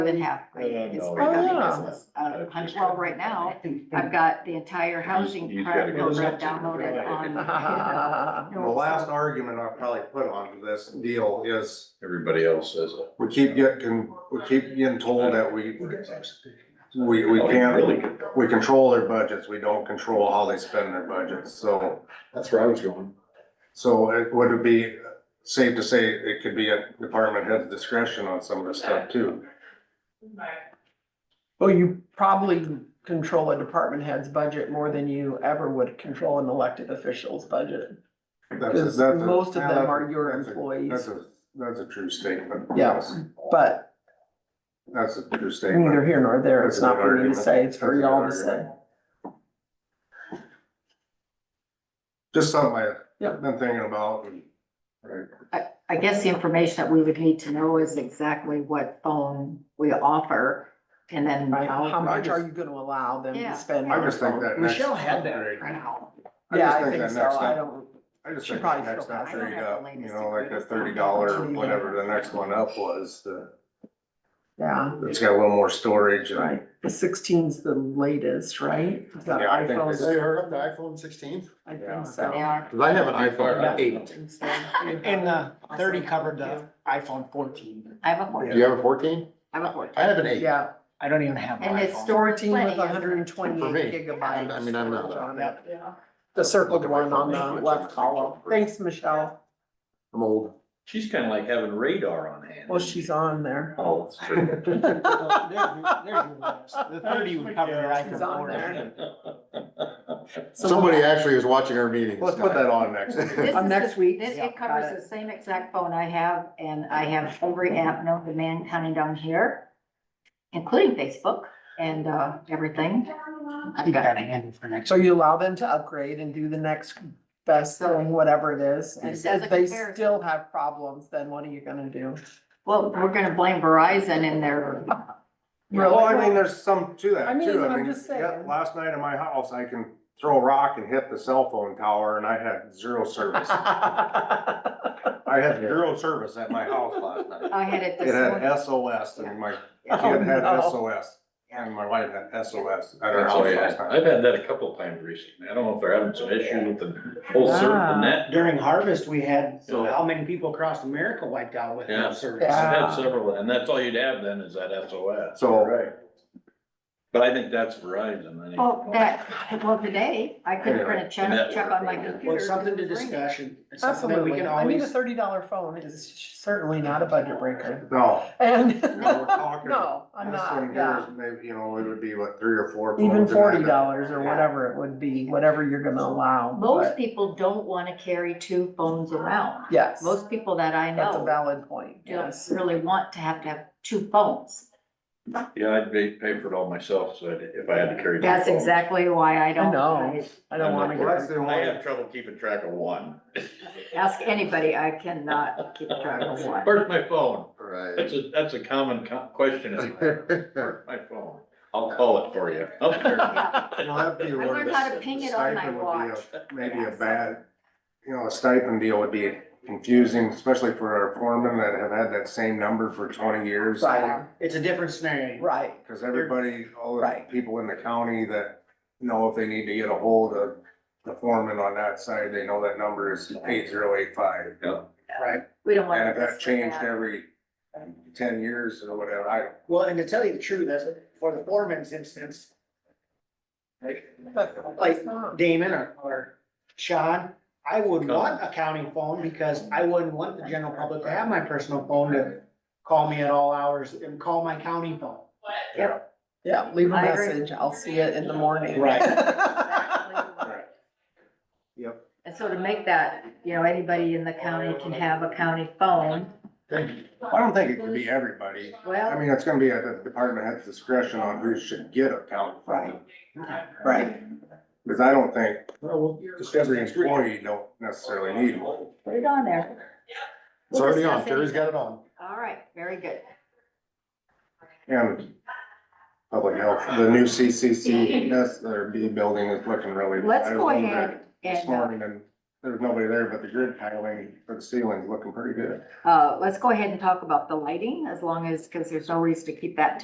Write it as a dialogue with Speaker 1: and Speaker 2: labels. Speaker 1: than half, right?
Speaker 2: Uh,
Speaker 1: It's
Speaker 2: no.
Speaker 1: for housing
Speaker 3: Oh, yeah.
Speaker 1: business. Uh, Huntsville right now, I've got the entire housing
Speaker 2: He's gotta
Speaker 1: card
Speaker 2: go
Speaker 1: program
Speaker 2: somewhere.
Speaker 1: downloaded on.
Speaker 3: Well,
Speaker 4: The last argument I'll probably put onto this deal is,
Speaker 2: Everybody else says it.
Speaker 4: we keep getting, we keep getting told that we, we, we
Speaker 2: Oh, you
Speaker 4: can't,
Speaker 2: Really good.
Speaker 4: we control their budgets, we don't control how they spend their budgets, so.
Speaker 2: That's where I was going.
Speaker 4: So it would it be safe to say it could be at department head's discretion on some of this stuff too?
Speaker 3: you probably control a department head's budget more than you ever would control an elected official's budget.
Speaker 4: That's-
Speaker 3: Because
Speaker 4: that's a-
Speaker 3: most of
Speaker 4: yeah,
Speaker 3: them
Speaker 4: that's-
Speaker 3: are your
Speaker 4: that's a- That's
Speaker 3: employees,
Speaker 4: a, that's a true statement.
Speaker 3: Yeah.
Speaker 4: Yes,
Speaker 3: but
Speaker 4: That's a true
Speaker 3: neither
Speaker 4: statement.
Speaker 3: here nor there. It's
Speaker 4: That's
Speaker 3: not
Speaker 4: a good
Speaker 3: for me to
Speaker 4: argument.
Speaker 3: say, it's for
Speaker 4: That's a
Speaker 3: y'all
Speaker 4: good
Speaker 3: to say.
Speaker 4: argument. Just something
Speaker 3: Yeah.
Speaker 4: I've been thinking about and, right,
Speaker 1: I guess the information that we would need to know is exactly what phone we offer and then.
Speaker 3: Right, how
Speaker 1: how-
Speaker 3: much are you gonna allow them
Speaker 1: Yeah.
Speaker 3: to spend?
Speaker 4: I
Speaker 3: on
Speaker 4: just think
Speaker 3: phone?
Speaker 4: that next
Speaker 5: Michelle had that.
Speaker 4: upgrade-
Speaker 1: Wow.
Speaker 4: I
Speaker 3: Yeah,
Speaker 4: just
Speaker 3: I think
Speaker 4: that
Speaker 3: so,
Speaker 4: next
Speaker 3: I
Speaker 4: up-
Speaker 3: don't,
Speaker 4: I just
Speaker 3: She
Speaker 4: think
Speaker 3: probably
Speaker 4: next
Speaker 3: still
Speaker 4: time
Speaker 3: has
Speaker 1: it.
Speaker 4: trade up, you know, like the
Speaker 1: Greatest
Speaker 4: thirty dollar,
Speaker 3: secret.
Speaker 4: whatever the next one up was, the,
Speaker 3: yeah,
Speaker 4: it's got a little more storage and.
Speaker 3: right, the sixteen's the latest, right? The
Speaker 4: Yeah, I think
Speaker 3: iPhones,
Speaker 4: they-
Speaker 2: heard of the iPhone sixteen?
Speaker 3: I
Speaker 4: Yeah.
Speaker 3: think
Speaker 1: They
Speaker 3: so.
Speaker 1: are.
Speaker 2: Cause I have an
Speaker 3: Yeah.
Speaker 2: iPhone eight.
Speaker 5: And the thirty covered the iPhone fourteen.
Speaker 1: I have a
Speaker 2: Do
Speaker 1: fourteen,
Speaker 2: you have a fourteen?
Speaker 1: I have a fourteen.
Speaker 2: I have an eight.
Speaker 3: Yeah,
Speaker 5: I don't even have an
Speaker 1: And it's
Speaker 5: iPhone.
Speaker 1: stored
Speaker 3: fourteen
Speaker 1: plenty.
Speaker 3: with
Speaker 1: isn't it?
Speaker 3: hundred and
Speaker 2: For me.
Speaker 3: twenty-eight gigabytes.
Speaker 2: I mean, I'm not-
Speaker 3: storage on it.
Speaker 5: Yep.
Speaker 3: The
Speaker 2: Look
Speaker 3: circled
Speaker 2: at my
Speaker 3: one on
Speaker 2: phone.
Speaker 3: the left column. Thanks, Michelle.
Speaker 2: I'm old.
Speaker 6: She's kinda like having radar on hand.
Speaker 3: Well, she's on there.
Speaker 2: Oh, that's true.
Speaker 5: Well, there's your- there's your list. The thirty would cover your
Speaker 3: It's on
Speaker 5: iPhone fourteen.
Speaker 3: there.
Speaker 2: Somebody actually is watching our meetings.
Speaker 4: Let's put that on next.
Speaker 1: This
Speaker 3: On
Speaker 1: is
Speaker 3: Uh, next
Speaker 1: the-
Speaker 3: week?
Speaker 1: this-
Speaker 3: Yeah,
Speaker 1: It covers
Speaker 3: got
Speaker 1: the same exact phone I have, and I have every app known to mankind on here, including Facebook and, uh, everything. I've
Speaker 5: You got
Speaker 1: got
Speaker 5: a handle for next.
Speaker 3: So you allow them to upgrade and do the next best thing, whatever it is. And
Speaker 1: Just as a
Speaker 3: if they
Speaker 1: comparison.
Speaker 3: still have problems, then what are you gonna do?
Speaker 1: Well, we're gonna blame Verizon in their,
Speaker 4: Well, I mean, there's some to
Speaker 3: I
Speaker 4: that
Speaker 3: mean,
Speaker 4: too.
Speaker 3: I'm
Speaker 4: I mean,
Speaker 3: just
Speaker 4: yeah,
Speaker 3: saying.
Speaker 4: last night in my house, I can throw a rock and hit the cell phone tower and I had zero service. I had zero service at my house last night.
Speaker 1: I had it
Speaker 4: It
Speaker 1: this
Speaker 4: had
Speaker 1: morning.
Speaker 4: SOS and my
Speaker 3: Oh,
Speaker 4: kid had
Speaker 3: no.
Speaker 4: SOS and my wife had SOS at our
Speaker 6: Oh,
Speaker 4: house
Speaker 6: yeah,
Speaker 4: last night.
Speaker 6: I've had that a couple of times recently, I don't know if they're having some issues with the whole
Speaker 1: Ah.
Speaker 6: cert and that.
Speaker 5: During harvest, we had,
Speaker 6: So-
Speaker 5: how many people across America wiped out with
Speaker 6: Yeah.
Speaker 5: no service?
Speaker 3: Yeah.
Speaker 6: I've
Speaker 1: Ah.
Speaker 6: had several, and that's all you'd have then is that SOS.
Speaker 4: So-
Speaker 6: Right. But I think that's Verizon, I think.
Speaker 1: Well, Oh, that, well, today, I couldn't print a check,
Speaker 6: Anyway.
Speaker 1: check on my
Speaker 6: Well,
Speaker 1: computer.
Speaker 5: Well, it's something to
Speaker 1: It's ringing.
Speaker 5: discussion. It's something that we
Speaker 3: Absolutely.
Speaker 5: can
Speaker 3: I mean, a
Speaker 5: always,
Speaker 3: thirty dollar phone is certainly not a budget breaker.
Speaker 4: No,
Speaker 3: And,
Speaker 4: you know, we're talking.
Speaker 3: no, I'm
Speaker 4: This
Speaker 3: not,
Speaker 4: one here
Speaker 3: yeah.
Speaker 4: is maybe, you know, it would be what, three or four.
Speaker 3: Even
Speaker 4: phones in that.
Speaker 3: forty dollars or whatever it would be, whatever you're gonna allow.
Speaker 1: Most
Speaker 3: but
Speaker 1: people don't wanna carry two phones around.
Speaker 3: Yes,
Speaker 1: Most people that I
Speaker 3: that's a
Speaker 1: know
Speaker 3: valid point,
Speaker 1: don't
Speaker 3: yes.
Speaker 1: really want to have to have two phones.
Speaker 6: Yeah, I'd pay, pay for it all myself, so I'd- if I had to carry. two
Speaker 1: That's
Speaker 6: phones.
Speaker 1: exactly why I don't.
Speaker 3: know. I don't wanna
Speaker 4: Well, that's
Speaker 3: get,
Speaker 4: the
Speaker 6: I
Speaker 4: only.
Speaker 6: have trouble keeping track of one.
Speaker 1: Ask anybody, I cannot keep track of one.
Speaker 6: Where's my phone? That's
Speaker 2: Right.
Speaker 6: a, that's a common co- question, is where's my phone? I'll call it for you.
Speaker 4: Well, that'd be
Speaker 1: I
Speaker 4: one
Speaker 1: learned
Speaker 4: of
Speaker 1: how
Speaker 4: the-
Speaker 1: to ping
Speaker 4: the
Speaker 1: it on my
Speaker 4: stipend would be
Speaker 1: watch.
Speaker 4: a- Maybe a bad, you know, a stipend deal would be confusing, especially for our foremen that have had that same number for twenty years.
Speaker 3: right,
Speaker 5: it's a different scenario.
Speaker 3: right,
Speaker 4: Cause everybody, all the
Speaker 3: Right.
Speaker 4: people in the county that know if they need to get a hold of the foreman on that side, they know that number is eight zero eight five.
Speaker 1: We don't want.
Speaker 4: And if that changed
Speaker 1: Yeah.
Speaker 4: every ten years or whatever, I,
Speaker 5: Well, and to tell you the truth, that's for the foreman's instance. Like, like Damon or, or Sean, I would want a county phone because I wouldn't want the general public to have my personal phone to call me at all hours and call my county phone.
Speaker 3: yeah, leave a
Speaker 1: I agree.
Speaker 3: message, I'll see it in the morning.
Speaker 5: Right.
Speaker 1: Exactly.
Speaker 4: Yep.
Speaker 1: And so to make that, you know, anybody in the county can have a county phone,
Speaker 4: I don't think it could be everybody. I
Speaker 1: well,
Speaker 4: mean, it's gonna be at the department head's discretion on who should get a county phone.
Speaker 3: Right,
Speaker 4: Cause I don't think
Speaker 5: Well,
Speaker 4: every employee don't necessarily need one.
Speaker 1: put it on there.
Speaker 2: It's already on, Terry's got it on.
Speaker 1: All right, very good.
Speaker 4: And public health, the new CCC, that's, their B building is looking really.
Speaker 1: Let's
Speaker 4: I
Speaker 1: go
Speaker 4: was in
Speaker 1: ahead
Speaker 4: there This
Speaker 1: and, uh,
Speaker 4: morning and there was nobody there, but the grid tiling for the ceiling's looking pretty good.
Speaker 1: Uh, let's go ahead and talk about the lighting as long as, because there's no reason to keep that